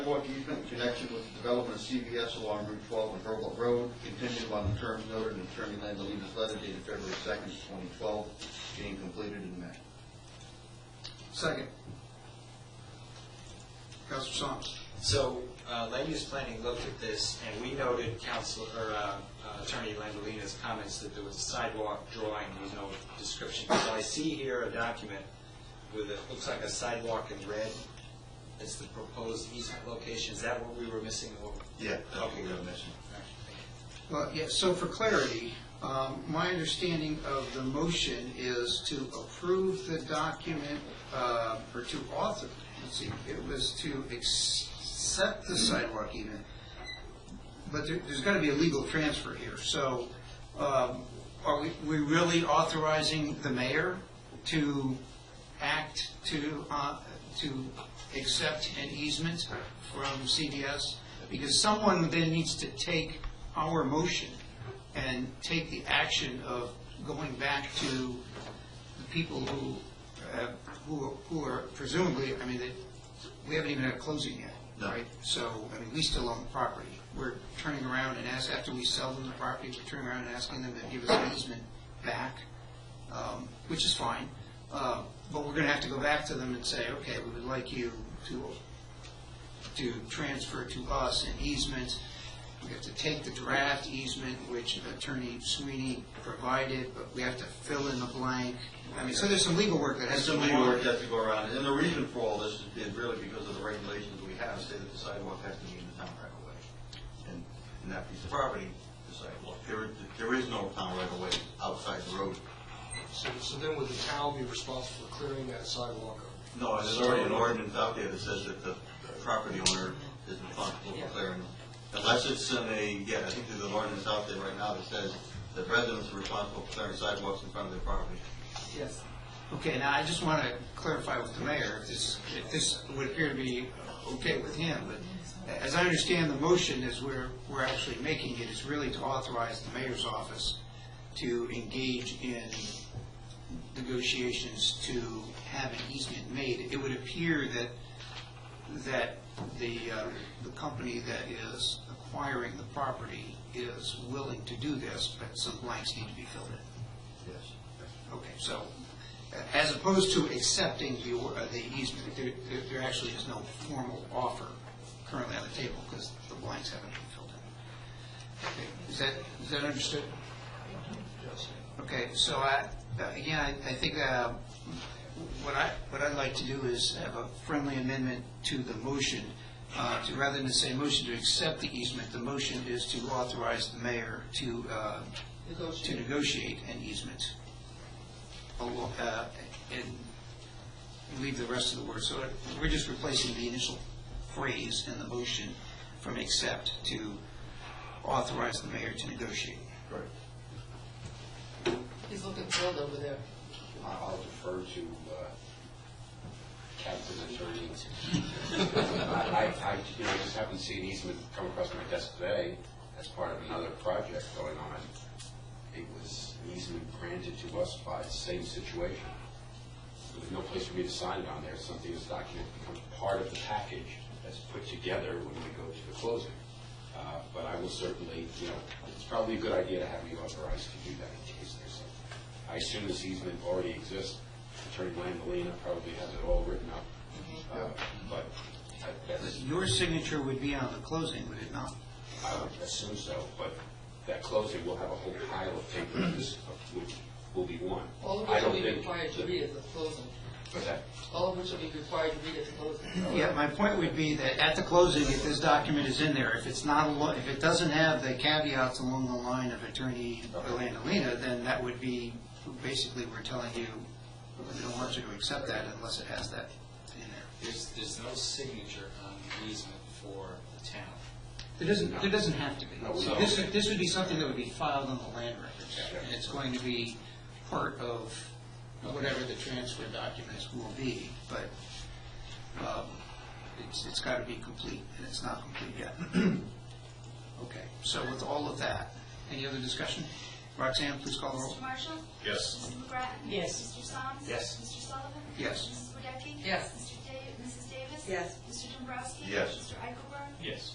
sidewalk easement in connection with the development of CVS along Route 12 and Herbert Road, contingent on the terms noted in Attorney Landelina's letter dated February 2nd, 2012, being completed in May. Second. Counselor Sombs. So, uh, land use planning looked at this, and we noted council, or uh, uh, Attorney Landolina's comments that there was a sidewalk drawing, with no description. So I see here a document with, it looks like a sidewalk in red, it's the proposed easement location, is that what we were missing? or- Yeah. Okay, good. missing. Well, yeah, so for clarity, um, my understanding of the motion is to approve the document, uh, or to author, let's see, it was to accept the sidewalk even, but there, there's gotta be a legal transfer here, so, um, are we, we really authorizing the mayor to act to, uh, to accept an easement from CDS? Because someone then needs to take our motion and take the action of going back to the people who, uh, who, who are presumably, I mean, they, we haven't even had a closing yet, No. right? So, I mean, we still own the property. We're turning around and ask, after we sell them the property, we're turning around and asking them to give us an easement back, um, which is fine. Uh, But we're going to have to go back to them and say, okay, we would like you to, to transfer to us an easement. We have to take the draft easement, which Attorney Sweeney provided, but we have to fill in the blank. I mean, so there's some legal work that And has to some go on. legal work has to go around, and the reason for all this is- is really because of the regulations we have, say that the sidewalk has to be in the town right of way. And in that piece of property, the sidewalk, there, there is no town right of way outside the road. So, so then would the town be responsible for clearing that sidewalk up? No, there's already an ordinance out there that says that the property owner is responsible for clearing them. Unless it's in a, yeah, I think there's an ordinance out there right now that says that residents are responsible for clearing sidewalks in front of their property. Yes. Okay, now I just want to clarify with the mayor, if this, if this would appear to be okay with him, but as I understand, the motion is where we're actually making it is really to authorize the mayor's office to engage in negotiations to have an easement made. It would appear that, that the, uh, the company that is acquiring the property is willing to do this, but some blanks need to be filled in. Yes. Okay, so uh, as opposed to accepting the, or- uh, the easement, there, there- there actually is no formal offer currently on the table because the blanks haven't been filled in. Okay, Is that, is that understood? Okay, so I, uh, again, I- I think uh, what I, what I'd like to do is have a friendly amendment to the motion. uh, To, rather than say motion to accept the easement, the motion is to authorize the mayor to, uh, to Negotiate. negotiate an easement. Al- uh, And leave the rest of the word, so we're just replacing the initial phrase in the motion from accept to authorize the mayor to negotiate. Correct. He's looking thrilled over there. I'll defer to uh, counsel's attorney. I, I, you know, I just happened to see an easement come across my desk today as part of another project going on. It was an easement granted to us by the same situation. There was no place for me to sign it on there. Something is document becomes part of the package that's put together when we go to the closing. Uh, But I will certainly, you know, it's probably a good idea to have me authorized to do that in case there's something. I assume this easement already exists. Attorney Landolina probably has it all written up. Uh, But I- that's, Your signature would be on the closing, would it not? I would assume so, but that closing, we'll have a whole pile of papers, which will be one. All of I which don't will be think required to that- read at the closing. But that, All of which will be required to read at the closing. Yeah, my point would be that at the closing, if this document is in there, if it's not, a lo- if it doesn't have the caveats along the line of Attorney Landolina, then that would be, basically, we're telling you, we don't want you to accept that unless it has that in there. There's, there's no signature on the easement for the town. There doesn't, there doesn't have to be. No, we So don't. This, this would be something that would be filed on the land records, and it's going to be part of whatever the transfer documents will be, but um, it's, it's got to be complete, and it's not complete yet. Okay, so with all of that, any other discussion? Roxanne, please call the roll. Mr. Marshall? Yes. Mrs. McGrattan? Yes. Mr. Soms? Yes. Mr. Sullivan? Yes. Mrs. Wadecki? Yes. Mr. Da- Mrs. Davis? Yes. Mr. Dombrowski? Yes. Mr. Eichelberg?